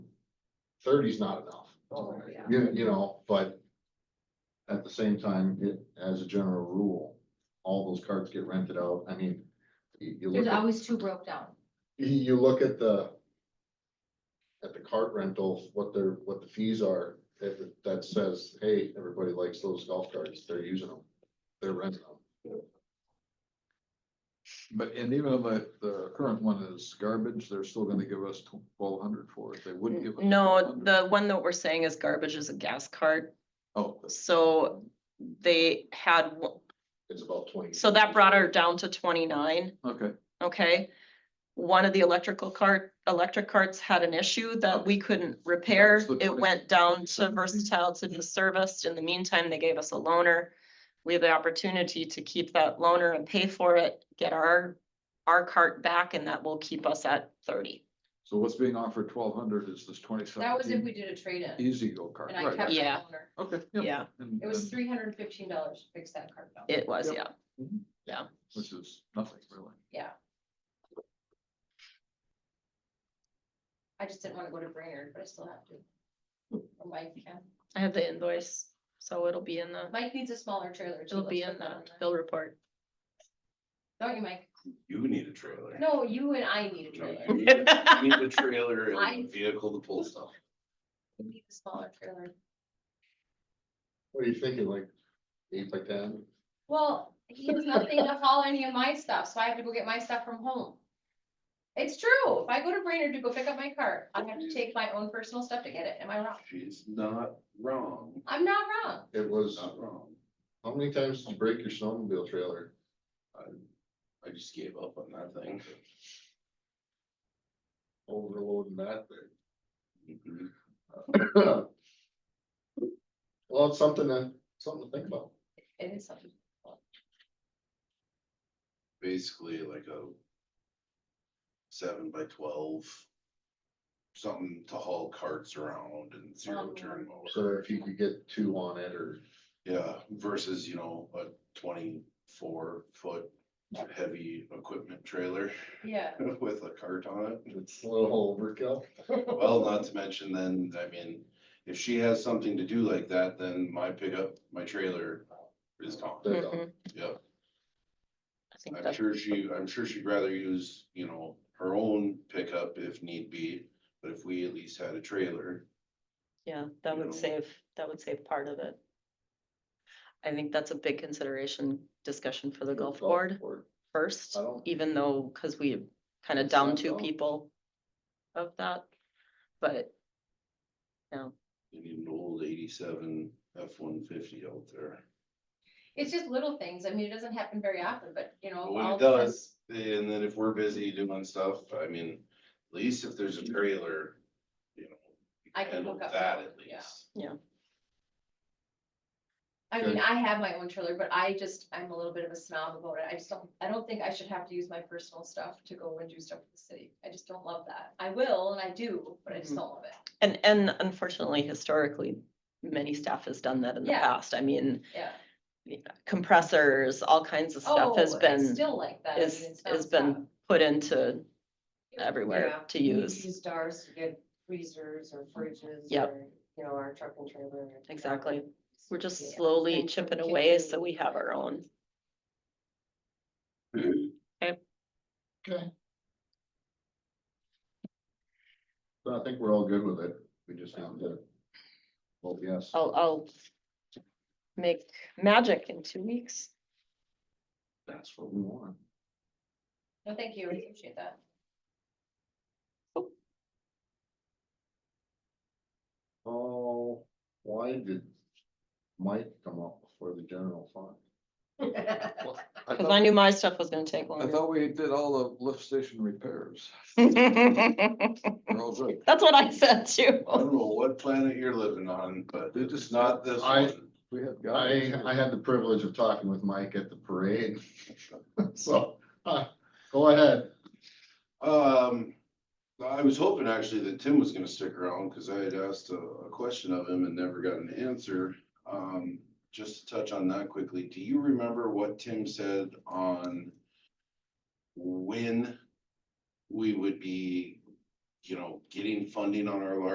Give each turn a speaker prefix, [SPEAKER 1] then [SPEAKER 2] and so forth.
[SPEAKER 1] thirty's not enough.
[SPEAKER 2] Oh, yeah.
[SPEAKER 1] You, you know, but at the same time, it, as a general rule, all those carts get rented out. I mean, you, you look
[SPEAKER 2] There's
[SPEAKER 1] at,
[SPEAKER 2] always two broke down.
[SPEAKER 1] you, you look at the at the cart rentals, what their, what the fees are, that, that says, hey, everybody likes those golf carts, they're using them, they're renting them.
[SPEAKER 3] But, and even though the, the current one is garbage, they're still gonna give us twelve hundred for it, they wouldn't give. us
[SPEAKER 4] No,
[SPEAKER 3] 1,200.
[SPEAKER 4] the one that we're saying is garbage is a gas cart,
[SPEAKER 3] Oh,
[SPEAKER 4] so they had, one-
[SPEAKER 1] It's about twenty.
[SPEAKER 4] so that brought her down to twenty-nine,
[SPEAKER 3] okay,
[SPEAKER 4] okay? One of the electrical cart, electric carts had an issue that we couldn't repair,
[SPEAKER 3] That's the Mm-hmm.
[SPEAKER 4] it
[SPEAKER 3] 20.
[SPEAKER 4] went down to versatile to be serviced, in the meantime, they gave us a loaner. We have the opportunity to keep that loaner and pay for it, get our, our cart back, and that will keep us at thirty.
[SPEAKER 3] so what's being offered twelve hundred is this twenty
[SPEAKER 2] That was if
[SPEAKER 3] seventeen
[SPEAKER 2] we did a trade-in
[SPEAKER 3] easy go kart,
[SPEAKER 2] and I
[SPEAKER 3] right?
[SPEAKER 2] kept
[SPEAKER 3] right.
[SPEAKER 2] the
[SPEAKER 4] Yeah.
[SPEAKER 2] owner.
[SPEAKER 3] Okay.
[SPEAKER 4] Yeah.
[SPEAKER 3] and-
[SPEAKER 2] It was
[SPEAKER 3] and-
[SPEAKER 2] three hundred and fifteen dollars to fix that cart down.
[SPEAKER 4] It was,
[SPEAKER 3] Yep.
[SPEAKER 4] yeah.
[SPEAKER 3] Which is nothing really.
[SPEAKER 2] I just didn't wanna go to Brainerd, but I still have to. Or Mike can.
[SPEAKER 4] I have the invoice, so it'll be in the,
[SPEAKER 2] Mike needs a smaller trailer. too.
[SPEAKER 4] it'll
[SPEAKER 2] Let's
[SPEAKER 4] be
[SPEAKER 2] put that
[SPEAKER 4] in the
[SPEAKER 2] on there.
[SPEAKER 4] bill report.
[SPEAKER 2] Don't you, Mike?
[SPEAKER 5] You need a trailer.
[SPEAKER 2] No, you and I need a
[SPEAKER 5] You
[SPEAKER 2] trailer.
[SPEAKER 5] Need a- you need a trailer
[SPEAKER 2] I-
[SPEAKER 5] and a vehicle to pull stuff.
[SPEAKER 2] We need a smaller trailer.
[SPEAKER 1] What are you thinking, like eight by ten?
[SPEAKER 2] Well, he has nothing to haul any of my stuff, so I have to go get my stuff from home. It's true. If I go to Brainerd to go pick up my cart, I have to take my own personal stuff to get it. Am I wrong?
[SPEAKER 5] She's not wrong,
[SPEAKER 2] I'm not wrong.
[SPEAKER 1] It was,
[SPEAKER 5] not wrong.
[SPEAKER 1] how many times did you break your snowmobile trailer?
[SPEAKER 5] I just gave up on that thing.
[SPEAKER 1] Overloading that thing.
[SPEAKER 5] Mhm.
[SPEAKER 1] Well, it's something to, something to think about.
[SPEAKER 2] It is something.
[SPEAKER 5] Basically like a seven by twelve, something to haul carts around and zero
[SPEAKER 2] Um,
[SPEAKER 5] turn mower.
[SPEAKER 1] So if you could get two on it or,
[SPEAKER 5] Yeah, versus, you know, a twenty-four foot heavy equipment trailer
[SPEAKER 2] Yeah.
[SPEAKER 5] with a cart on it.
[SPEAKER 1] it's a little overkill.
[SPEAKER 5] Well, not to mention then, I mean, if she has something to do like that, then my pickup, my trailer is gone.
[SPEAKER 1] They're done.
[SPEAKER 4] Mhm.
[SPEAKER 5] Yep,
[SPEAKER 4] I think
[SPEAKER 5] I'm
[SPEAKER 4] that's,
[SPEAKER 5] sure she, I'm sure she'd rather use, you know, her own pickup if need be, but if we at least had a trailer.
[SPEAKER 4] yeah, that
[SPEAKER 5] know.
[SPEAKER 4] would save, that would save part of it. I think that's a big consideration, discussion for the golf board first,
[SPEAKER 1] I don't-
[SPEAKER 4] even though, cause we kind of
[SPEAKER 1] It's
[SPEAKER 4] down
[SPEAKER 1] not
[SPEAKER 4] two
[SPEAKER 1] golf.
[SPEAKER 4] people of that. But
[SPEAKER 5] You need an old eighty-seven F one fifty out there.
[SPEAKER 2] It's just little things. I mean, it doesn't happen very often, but you know.
[SPEAKER 5] But When
[SPEAKER 2] all
[SPEAKER 5] it
[SPEAKER 2] this
[SPEAKER 5] does, and then if we're busy doing stuff, I mean, at least if there's a trailer, you know. you
[SPEAKER 2] I can
[SPEAKER 5] handle
[SPEAKER 2] hook up
[SPEAKER 5] That
[SPEAKER 2] my-
[SPEAKER 5] at
[SPEAKER 2] yeah.
[SPEAKER 5] least.
[SPEAKER 2] I mean,
[SPEAKER 1] Good.
[SPEAKER 2] I have my own trailer, but I just, I'm a little bit of a snob about it. I just don't, I don't think I should have to use my personal stuff to go and do stuff for the city. I just don't love that. I will and I do, but I just
[SPEAKER 4] Mhm.
[SPEAKER 2] don't love it.
[SPEAKER 4] And, and unfortunately, historically, many staff has done that in the
[SPEAKER 2] Yeah.
[SPEAKER 4] past. I mean,
[SPEAKER 2] Yeah.
[SPEAKER 4] compressors, all kinds of stuff has
[SPEAKER 2] Oh, it's
[SPEAKER 4] been,
[SPEAKER 2] Still like that. I mean,
[SPEAKER 4] is,
[SPEAKER 2] it's
[SPEAKER 4] has
[SPEAKER 2] nonstop.
[SPEAKER 4] been put into
[SPEAKER 6] Yeah.
[SPEAKER 4] everywhere to
[SPEAKER 6] We
[SPEAKER 4] use.
[SPEAKER 6] Use DARS to get freezers or fridges.
[SPEAKER 4] Yep.
[SPEAKER 6] or, You know, our truck and trailer.
[SPEAKER 4] Exactly. We're just
[SPEAKER 6] Yeah.
[SPEAKER 4] slowly
[SPEAKER 6] And so we
[SPEAKER 4] chipping
[SPEAKER 6] can
[SPEAKER 4] away
[SPEAKER 6] do-
[SPEAKER 4] so we have our own.
[SPEAKER 1] But I think we're all good with it. We just have to. Well, yes.
[SPEAKER 2] Oh,
[SPEAKER 4] I'll, I'll make magic in two weeks.
[SPEAKER 1] That's what we want.
[SPEAKER 2] No, thank you. I appreciate that.
[SPEAKER 1] Oh, why did Mike come up before the general fund?
[SPEAKER 3] I
[SPEAKER 4] Cause I
[SPEAKER 3] thought,
[SPEAKER 4] knew my stuff was gonna take
[SPEAKER 3] I
[SPEAKER 4] longer.
[SPEAKER 3] thought we did all the lift station repairs.
[SPEAKER 4] That's
[SPEAKER 3] We're all good.
[SPEAKER 4] what I said too.
[SPEAKER 5] I don't know what planet you're living on, but
[SPEAKER 3] They
[SPEAKER 5] it's
[SPEAKER 3] just-
[SPEAKER 5] not this
[SPEAKER 1] I-
[SPEAKER 5] one.
[SPEAKER 3] We have
[SPEAKER 1] I,
[SPEAKER 3] guys.
[SPEAKER 1] I had the privilege of talking with Mike at the parade. So, uh, go ahead.
[SPEAKER 5] Um, I was hoping actually that Tim was gonna stick around, cause I had asked a, a question of him and never got an answer. Um, just to touch on that quickly, do you remember what Tim said on when we would be, you know, getting funding on our large